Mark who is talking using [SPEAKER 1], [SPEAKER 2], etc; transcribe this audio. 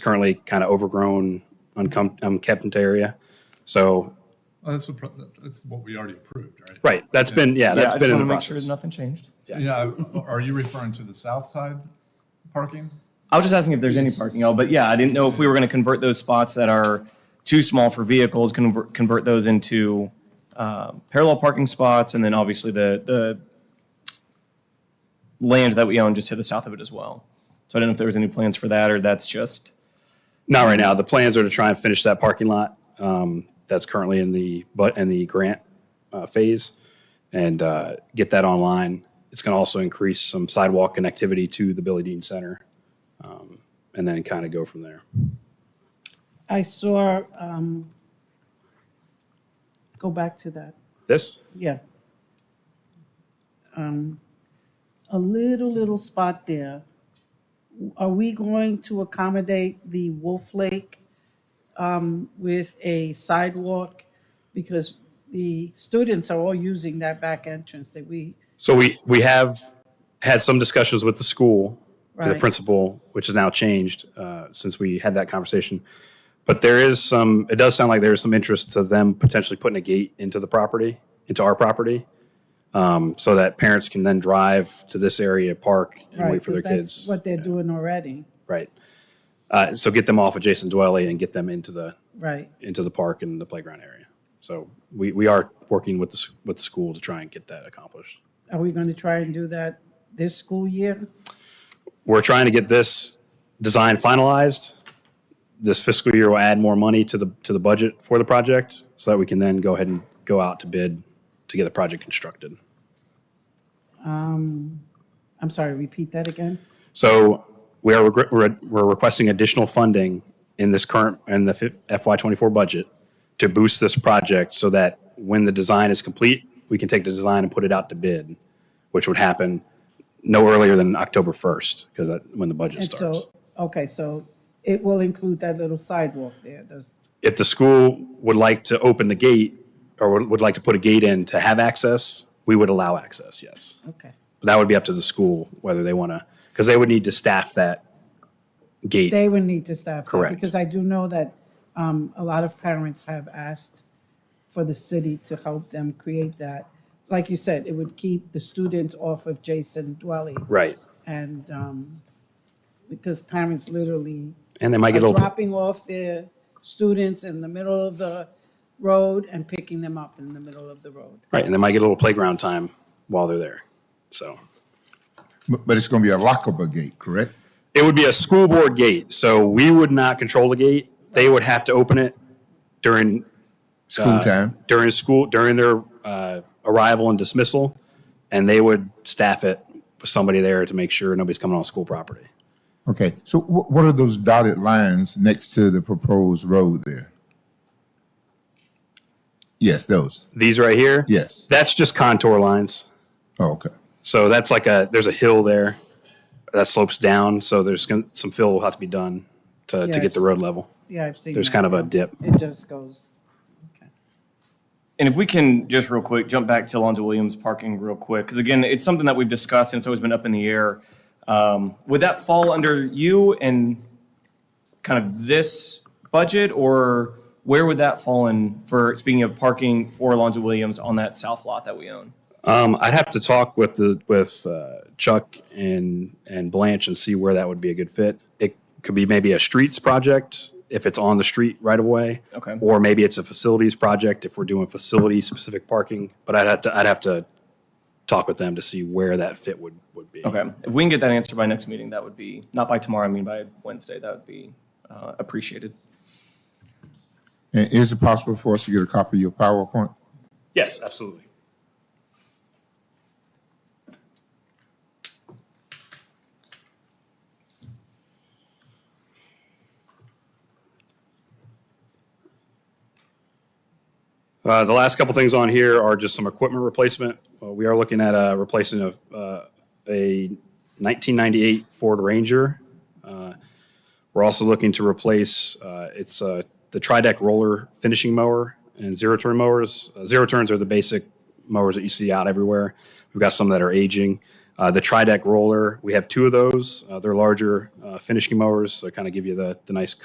[SPEAKER 1] currently kind of overgrown, uncom- unkempt area. So,
[SPEAKER 2] Well, Oh, That's, the pro- that's what we already approved, right?
[SPEAKER 1] right, that's been yeah,
[SPEAKER 3] Yeah,
[SPEAKER 1] that's
[SPEAKER 3] I
[SPEAKER 1] been
[SPEAKER 3] just
[SPEAKER 1] in
[SPEAKER 3] want
[SPEAKER 1] the
[SPEAKER 3] to make sure
[SPEAKER 1] process.
[SPEAKER 3] that nothing changed.
[SPEAKER 2] Yeah, are you referring to the south side parking?
[SPEAKER 3] I was just asking if there's any parking at all, but yeah, I didn't know if we were going to convert those spots that are too small for vehicles, convert, convert those into uh, parallel parking spots, and then obviously the, the land that we own just to the south of it as well. So I didn't know if there was any plans for that, or that's just,
[SPEAKER 1] Not right now. The plans are to try and finish that parking lot um, that's currently in the but in the grant uh, phase, and uh, get that online. It's going to also increase some sidewalk connectivity to the Billy Dean Center, um, and then kind of go from there.
[SPEAKER 4] I saw, um, go back to that,
[SPEAKER 1] This
[SPEAKER 4] yeah. Um, A little, little spot there. Are we going to accommodate the Wolf Lake um, with a sidewalk? Because the students are all using that back entrance that we,
[SPEAKER 1] So we we have had some discussions with the school, the
[SPEAKER 4] Right.
[SPEAKER 1] principal, which has now changed uh, since we had that conversation. But there is some. It does sound like there is some interest to them potentially putting a gate into the property, into our property, um, so that parents can then drive to this area, park, and
[SPEAKER 4] right,
[SPEAKER 1] wait for their
[SPEAKER 4] because that's
[SPEAKER 1] kids.
[SPEAKER 4] what they're doing already,
[SPEAKER 1] Right. Uh, so get them off of Jason Dwelly and get them into the
[SPEAKER 4] right?
[SPEAKER 1] into the park and the playground area. So we, we are working with the s- with the school to try and get that accomplished.
[SPEAKER 4] Are we going to try and do that this school year?
[SPEAKER 1] we're trying to get this design finalized. This fiscal year will add more money to the, to the budget for the project so that we can then go ahead and go out to bid to get the project constructed.
[SPEAKER 4] I'm sorry, repeat that again?
[SPEAKER 1] So we are, regre- we're we're requesting additional funding in this current, in the FY twenty-four budget to boost this project so that when the design is complete, we can take the design and put it out to bid, which would happen no earlier than October first, because that, when the budget
[SPEAKER 4] And
[SPEAKER 1] starts.
[SPEAKER 4] so, okay, so it will include that little sidewalk there, does,
[SPEAKER 1] if the school would like to open the gate or would, would like to put a gate in to have access, we would allow access, yes.
[SPEAKER 4] okay.
[SPEAKER 1] But that would be up to the school whether they want to, because they would need to staff that gate.
[SPEAKER 4] They would need to staff that,
[SPEAKER 1] Correct.
[SPEAKER 4] because I do know that um, a lot of parents have asked for the city to help them create that. Like you said, it would keep the students off of Jason Dwelly.
[SPEAKER 1] right.
[SPEAKER 4] And um, because parents literally
[SPEAKER 1] And they might
[SPEAKER 4] are
[SPEAKER 1] get a little,
[SPEAKER 4] dropping off their students in the middle of the road and picking them up in the middle of the road.
[SPEAKER 1] right, and they might get a little playground time while they're there. So
[SPEAKER 5] But, but it's going to be a lockable gate, correct?
[SPEAKER 1] it would be a school board gate. So we would not control the gate. They would have to open it during
[SPEAKER 5] School time.
[SPEAKER 1] during school during their uh, arrival and dismissal, and they would staff it with somebody there to make sure nobody's coming on school property.
[SPEAKER 5] Okay. So wh- what are those dotted lines next to the proposed road there? Yes, those.
[SPEAKER 1] These right here,
[SPEAKER 5] Yes.
[SPEAKER 1] that's just contour lines.
[SPEAKER 5] Oh, okay.
[SPEAKER 1] So that's like a there's a hill there that slopes down. So there's gonna, some fill will have to be done to, to get the
[SPEAKER 4] Yes.
[SPEAKER 1] road level.
[SPEAKER 4] Yeah, I've seen
[SPEAKER 1] There's
[SPEAKER 4] that.
[SPEAKER 1] kind of a dip.
[SPEAKER 4] It just goes.
[SPEAKER 3] and if we can just real quick, jump back to Alonzo Williams parking real quick, because again, it's something that we've discussed and it's always been up in the air. Um, Would that fall under you and kind of this budget, or where would that fall in for, speaking of parking for Alonzo Williams on that south lot that we own?
[SPEAKER 1] Um, I'd have to talk with the with uh, Chuck and and Blanche and see where that would be a good fit. It could be maybe a streets project if it's on the street right away.
[SPEAKER 3] Okay.
[SPEAKER 1] Or maybe it's a facilities project if we're doing facility specific parking. But I'd have to I'd have to talk with them to see where that fit would would be.
[SPEAKER 3] Okay, if we can get that answer by next meeting, that would be, not by tomorrow, I mean by Wednesday, that would be uh, appreciated.
[SPEAKER 5] And is it possible for us to get a copy of your PowerPoint?
[SPEAKER 1] Yes, absolutely. Uh, the last couple things on here are just some equipment replacement. Uh, we are looking at uh, replacing a, uh, a 1998 Ford Ranger. Uh, we're also looking to replace uh, it's uh, the tri-deck roller finishing mower and zero turn mowers. Uh, zero turns are the basic mowers that you see out everywhere. We've got some that are aging. Uh, Uh, the tri-deck roller, we have two of those. Uh, they're larger uh, finishing mowers, so kind of give you the, the nice